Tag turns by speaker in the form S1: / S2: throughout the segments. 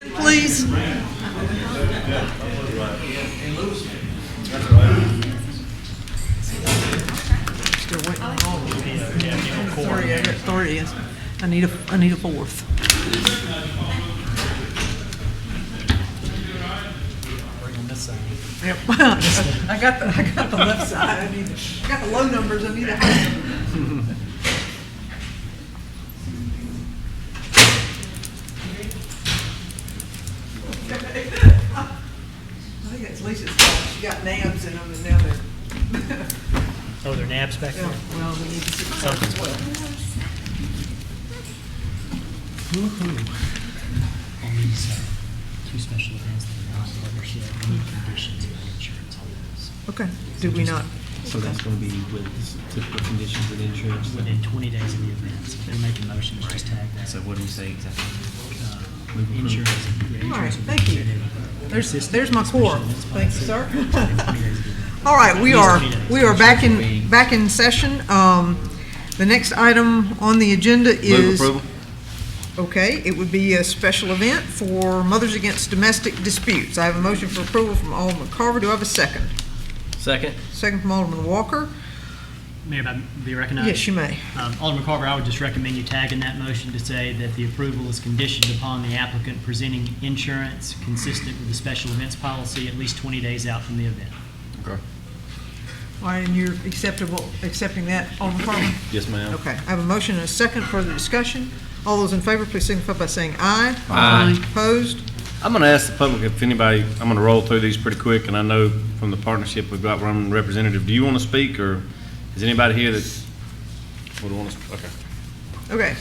S1: Please. Still waiting on all of them. Three, I got three. It's- I need a, I need a fourth. Yep. I got the, I got the left side. I need, I got the low numbers. I need a high. I think it's Lisa's fault. She got nabs in them and now they're,
S2: Oh, there are naps back there?
S1: yeah, well, we need to see.
S2: Something's what? On these, uh, two special events that are not covered, she had any conditions of insurance on those.
S1: Okay, do we not?
S3: So that's going to be with typical conditions with insurance.
S2: Within 20 days of the event, so if they're making motions, just tag that.
S3: So what do you say exactly?
S2: uh,
S3: Move approve.
S2: Insurance. yeah,
S1: All right,
S2: insurance will be
S1: thank you.
S2: included.
S1: There's,
S2: Assistance
S1: there's my
S2: with special
S1: quorum.
S2: events
S1: Thank you,
S2: policy.
S1: sir.
S2: Within 20 days of the event.
S1: All right, we are, we are back in,
S3: Meeting.
S1: back in session. Um, The next item on the agenda is. Okay, it would be a special event for Mothers Against Domestic Disputes. I have a motion for approval from Alderman Carver. Do I have a second?
S3: Second.
S1: Second from Alderman Walker?
S2: Mayor, may I be recognized?
S1: Yes, you may.
S2: Um, Alderman Carver, I would just recommend you tag in that motion to say that the approval is conditioned upon the applicant presenting insurance consistent with the special events policy at least 20 days out from the event.
S3: Okay.
S1: All right, and you're acceptable, accepting that, Alderman Carver?
S3: Yes, ma'am.
S1: Okay, I have a motion and a second. Further discussion? All those in favor, please signify by saying aye.
S4: Aye.
S1: Opposed?
S4: I'm going to ask the public if anybody, I'm going to roll through these pretty quick, and I know from the partnership we've got, Roman Representative, do you want to speak, or is anybody here that would want to, okay.
S1: Okay.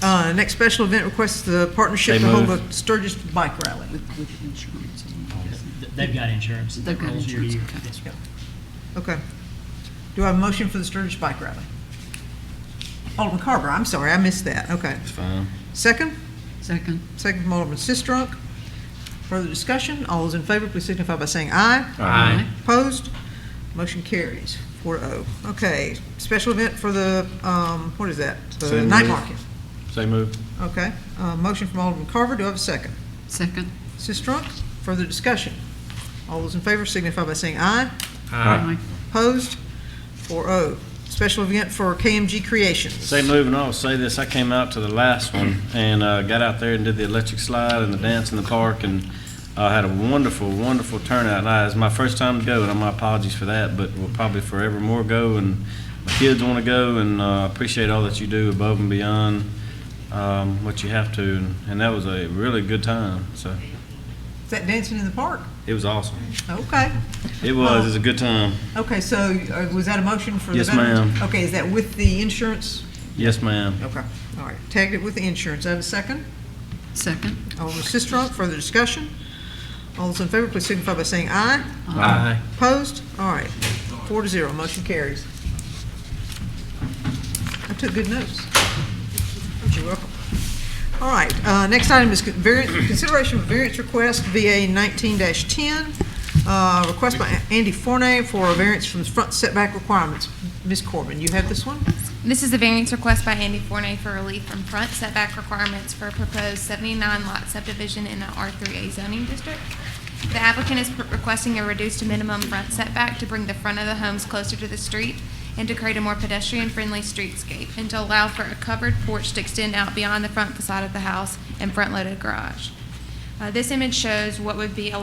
S1: Uh, Next special event requests the partnership
S4: They
S1: to hold
S4: moved.
S1: a Sturgis bike rally.
S5: with insurance.
S2: Th- They've got insurance.
S5: They've got
S2: Rolls year to
S5: insurance,
S2: year.
S5: okay.
S2: Yes, sir.
S1: Okay. Do I have a motion for the Sturgis Bike Rally? Alderman Carver, I'm sorry, I missed that. Okay.
S4: It's fine.
S1: Second?
S5: Second,
S1: Second from Alderman Sistrunk. Further discussion? All those in favor, please signify by saying aye.
S4: Aye.
S1: Opposed? Motion carries, four oh. Okay, special event for the, um, what is that? The
S4: Same
S1: night
S4: move.
S1: market.
S4: So move.
S1: Okay. Uh, Motion from Alderman Carver. Do I have a second?
S5: second,
S1: Sistrunk. Further discussion? All those in favor signify by saying aye.
S5: aye,
S1: Opposed? 4-0. Special event for KMG Creations.
S4: Say move, and I'll say this, I came out to the last one and uh, got out there and did the electric slide and the dance in the park and uh, had a wonderful, wonderful turnout. And I- It's my first time to go, and my apologies for that, but we'll probably forever more go, and my kids want to go, and uh, appreciate all that you do above and beyond um, what you have to. And- And that was a really good time, so
S1: Is that dancing in the park?
S4: it was awesome.
S1: Okay.
S4: It was, it was a good time.
S1: Okay, so uh, was that a motion for the
S4: Yes,
S1: veterans?
S4: ma'am.
S1: Okay, is that with the insurance?
S4: Yes, ma'am.
S1: Okay, all right. Tagged it with the insurance. I have a second.
S5: second,
S1: Alderman Sistrunk, further discussion? All those in favor, please signify by saying aye.
S4: Aye.
S1: Opposed? All right. Four to zero, motion carries. I took good notes. You're welcome. All right, uh, next item is con- variant- consideration of variance request, VA 19-10, uh, request by Andy Fornay for a variance from front setback requirements. Ms. Corbin, you have this one?
S6: This is a variance request by Andy Forney for relief from front setback requirements for a proposed 79 lot subdivision in the R3A zoning district. The applicant is pr- requesting a reduced to minimum front setback to bring the front of the homes closer to the street and to create a more pedestrian-friendly streetscape, and to allow for a covered porch to extend out beyond the front facade of the house and front-loaded garage. Uh, This image shows what would be a